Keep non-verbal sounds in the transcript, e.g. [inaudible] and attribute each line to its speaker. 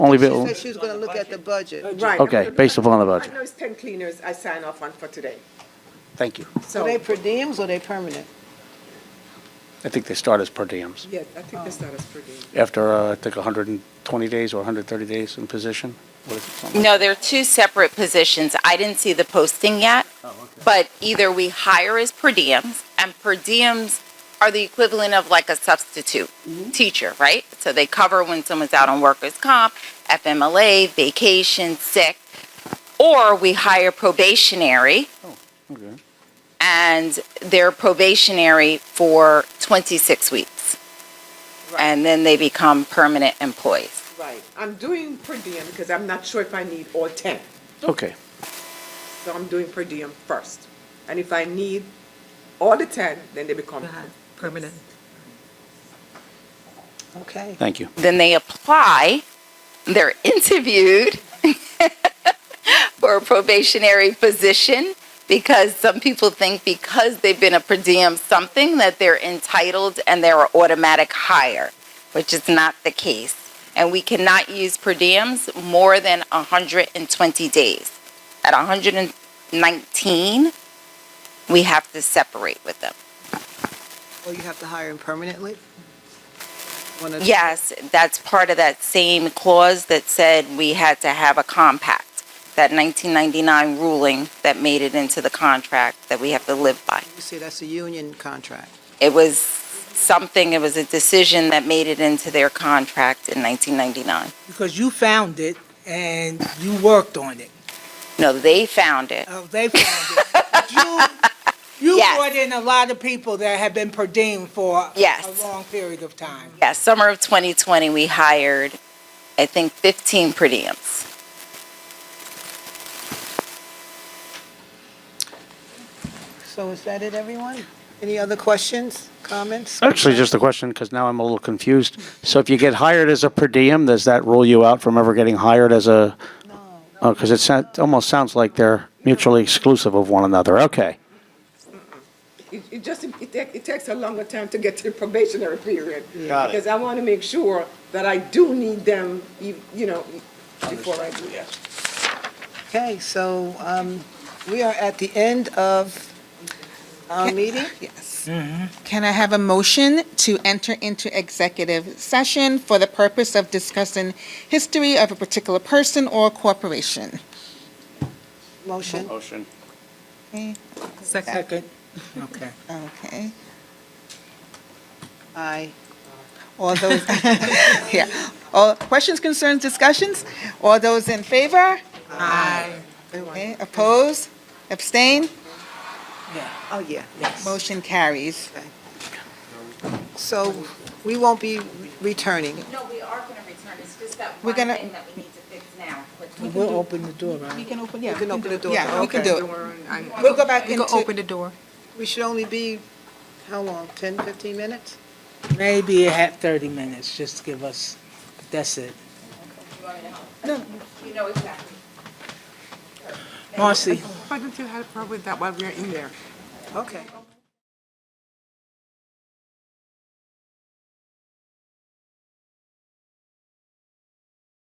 Speaker 1: Only,
Speaker 2: She
Speaker 1: bill-
Speaker 2: said she was gonna look at the budget.
Speaker 3: Right.
Speaker 1: okay, based upon the
Speaker 3: I
Speaker 1: budget.
Speaker 3: know it's ten cleaners I sign off on for today,
Speaker 4: Thank you.
Speaker 2: Are
Speaker 3: so,
Speaker 2: they per diems or they permanent?
Speaker 4: I think they start as per diems.
Speaker 3: yeah, I think this start is pretty.
Speaker 4: After, uh, I think, 120 days or 130 days in position? What is it, something like-
Speaker 5: No, they're two separate positions. I didn't see the posting yet. But either we hire as per diems, and per diems are the equivalent of like a substitute teacher, right? So they cover when someone's out on workers' comp, FMLA, vacation, sick. Or we hire probationary,
Speaker 4: Okay.
Speaker 5: and they're probationary for 26 weeks. And then they become permanent employees.
Speaker 3: Right, I'm doing per diem because I'm not sure if I need all ten,
Speaker 4: Okay,
Speaker 3: so I'm doing per diem first. And if I need all the ten, then they become. Permanent.
Speaker 2: Okay.
Speaker 4: thank you.
Speaker 5: then they apply, they're interviewed [laughs] for a probationary position because some people think because they've been a per diem something that they're entitled and they're an automatic hire, which is not the case. And we cannot use per diems more than 120 days. At 119, we have to separate with them.
Speaker 2: Or you have to hire them permanently? One of-
Speaker 5: Yes, that's part of that same clause that said we had to have a compact, that 1999 ruling that made it into the contract that we have to live by.
Speaker 2: You say that's a union contract.
Speaker 5: It was something, it was a decision that made it into their contract in 1999.
Speaker 6: because you found it and you worked on it.
Speaker 5: No, they found it.
Speaker 6: Uh, They found it.
Speaker 5: [laughs]
Speaker 6: But You, you
Speaker 5: Yes.
Speaker 6: brought in a lot of people that have been per diem for
Speaker 5: Yes.
Speaker 6: a long period of time.
Speaker 5: Yeah, summer of 2020, we hired, I think, 15 per diems.
Speaker 2: So is that it, everyone? Any other questions, comments?
Speaker 4: Actually, just a question, because now I'm a little confused. So if you get hired as a per diem, does that rule you out from ever getting hired as a? Oh, because it sa- almost sounds like they're mutually exclusive of one another. Okay.
Speaker 3: It, it just, it, ta- it takes a longer time to get to the probationary period.
Speaker 4: Got it.
Speaker 3: Because I want to make sure that I do need them, you you know, before I do that.
Speaker 2: Okay, so um, we are at the end of our meeting.
Speaker 7: Yes. Can I have a motion to enter into executive session for the purpose of discussing history of a particular person or corporation?
Speaker 2: Motion.
Speaker 4: Motion.
Speaker 7: Okay,
Speaker 6: Second. Okay.
Speaker 7: Okay.
Speaker 2: Aye.
Speaker 7: all those, [laughs] yeah. All questions, concerns, discussions? All those in favor? Aye. Okay, opposed, abstain,
Speaker 2: Oh, yeah, yes.
Speaker 7: motion carries.
Speaker 2: So we won't be returning.
Speaker 5: No, we are going to return. It's just that
Speaker 7: We're one gonna- thing
Speaker 5: that we need to fix now.
Speaker 6: We'll open the door, right?
Speaker 7: can open, yeah.
Speaker 2: We can open the door.
Speaker 7: Yeah, we can do it.
Speaker 2: We'll go
Speaker 7: back into. open the door.
Speaker 2: We should only be, how long, 10, 15 minutes?
Speaker 6: Maybe it had 30 minutes, just give us, that's it.
Speaker 5: You know exactly.
Speaker 6: Marcy.
Speaker 3: Why don't you have a problem with that while we're in there?
Speaker 2: Okay.